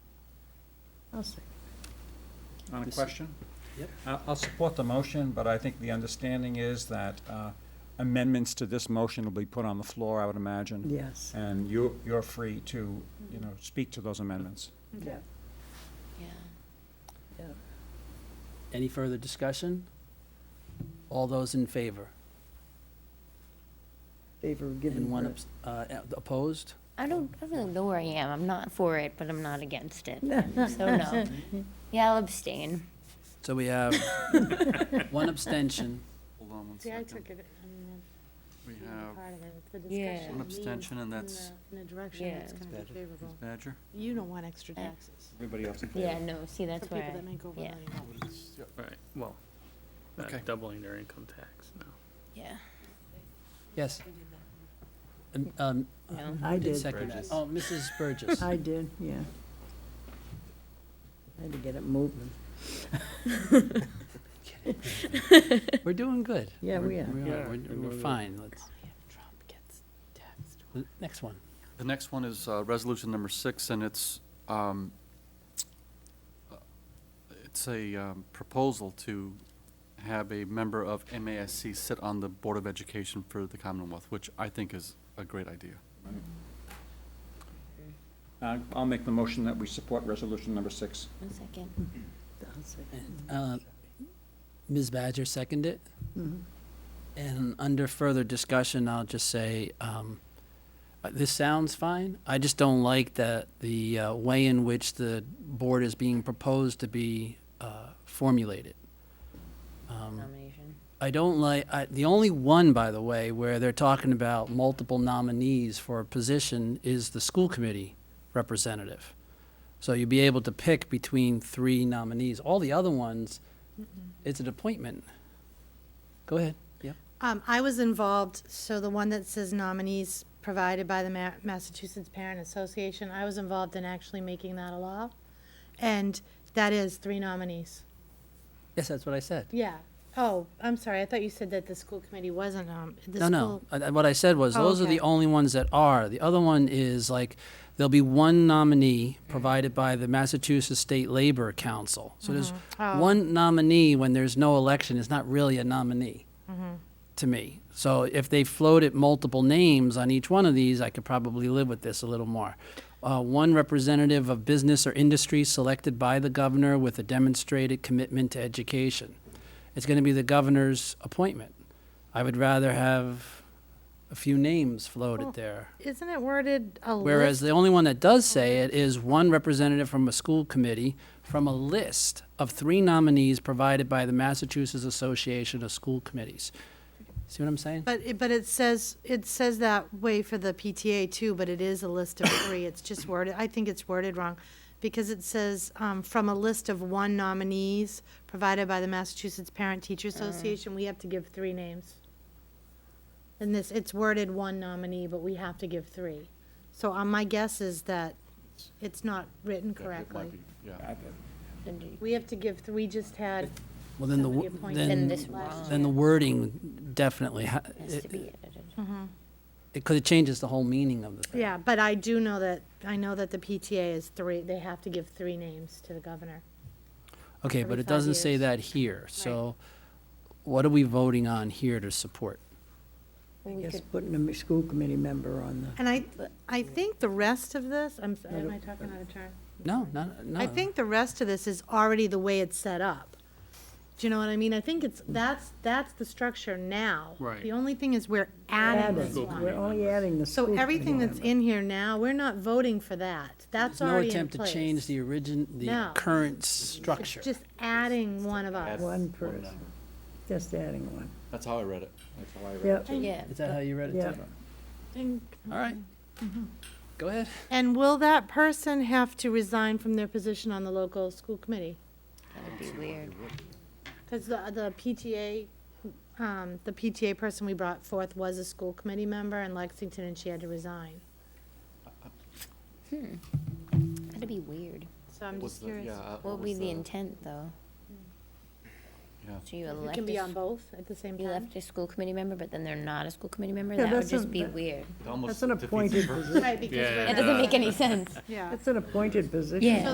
I'll second. On a This- question? Yep. I- I'll support the motion, but I think the understanding is that uh, amendments to this motion will be put on the floor, I would imagine. Yes. And you, you're free to, you know, speak to those amendments. Yeah. Yeah. Any further discussion? All those in favor? Favor of giving. And one her- abs- uh, uh, opposed? I don't, I really know where I am. I'm not for it, but I'm not against it. So no. Yeah, I'll abstain. So we have one abstention. Hold on one See, I second. took it, I mean, We that's not have part of it, it's the Yeah. discussion. One leads abstention, and in that's- the- In a direction Yeah. that's It's gonna be better. favorable. Badger. You don't want extra Yeah. taxes Everybody else in Yeah, no, see, for that's people where that I, make over a yeah. million dollars. Right, well, not Okay. doubling their income tax, no. yeah, Yes. Um, um, no. I did did, second that. Burgess. Oh, Mrs. Burgess. I did, yeah. I had to get it moving. We're doing good. Yeah, we We're- are. Yeah, We're, we're we're doing fine. Let's. Trump gets taxed. Next one. The next one is uh, resolution number six, and it's, um, uh, it's a um, proposal to have a member of MASC sit on the Board of Education for the Commonwealth, which I think is a great idea. Uh, I'll make the motion that we support resolution number six. One second. I'll second. Uh, Ms. Badger seconded it. Mhm. And under further discussion, I'll just say, um, uh, this sounds fine. I just don't like that the uh, way in which the board is being proposed to be uh, formulated. Um, Nomination. I don't like, I, the only one, by the way, where they're talking about multiple nominees for a position is the school committee representative. So you'd be able to pick between three nominees. All the other ones, it's an appointment. Go ahead. Yep. Um, I was involved, so the one that says nominees provided by the Ma- Massachusetts Parent Association, I was involved in actually making that a law. And that is three nominees. Yes, that's what I said. Yeah. Oh, I'm sorry, I thought you said that the school committee wasn't, um, the No, school. no. I- I- What I said was, Oh, those are the okay. only ones that are. The other one is like, there'll be one nominee provided by the Massachusetts State Labor Council. So there's Oh. one nominee when there's no election is not really a nominee Mm-hmm. to me. So if they floated multiple names on each one of these, I could probably live with this a little more. Uh, one representative of business or industry selected by the governor with a demonstrated commitment to education. It's going to be the governor's appointment. I would rather have a few names floated there. Isn't it worded Oh, a list? Whereas the only one that does say it is one representative from a school committee from a list of three nominees provided by the Massachusetts Association of School Committees. See what I'm saying? But, it- but it says, it says that way for the PTA too, but it is a list of three, it's just worded, I think it's worded wrong, because it says, um, from a list of one nominees provided by the Massachusetts Parent Teacher Mm. Association, we have to give three names. And this, it's worded one nominee, but we have to give three. So, um, my guess is that it's not written Yeah, it might correctly. be, Yeah. Then do you- We have to give three, just had Well, then the, somebody wo- appointed Then then, this last one. then the wording definitely, ha- Has to it, be edited. because it changes the whole meaning of the thing. Yeah, but I do know that, I know that the PTA is three, they have to give three names to the governor. Okay, every but it five doesn't say years. that here, so what are we voting on here to support? Well, I we guess could- putting a m- school committee member on the, And I, I think the rest of this, I'm, s- am I talking out of turn? No, no, no. I think the rest of this is already the way it's set up. Do you know what I mean? I think it's, that's, that's the structure now. Right. The only thing is we're adding this School we're committee. one. only adding the school. So everything committee that's in here now, we're not voting for that. That's No already in attempt to place. change the origin, the No. current structure. It's just adding one of us. member. One person, just adding one. That's how I read it. That's how I read Yep, Yeah, Is that how you read it? Yeah. Deborah? And- All right. Mm-hmm. Go ahead. And will that person have to resign from their position on the local school committee? that would be weird. Because the, the PTA, um, the PTA person we brought forth was a school committee member in Lexington and she had to resign. That'd be weird. So I'm What's just the- curious. yeah, uh, What would was be the intent, though? Yeah. So you You elect, can a be on s- both at the same you time. left a school committee member, but then they're not a school committee member? Yeah, That would that's a- just be that- weird. It almost That's an defeats the appointed purpose. position. Right, because Yeah, we're it It not- doesn't make any sense. Yeah. That's an appointed position. Yeah.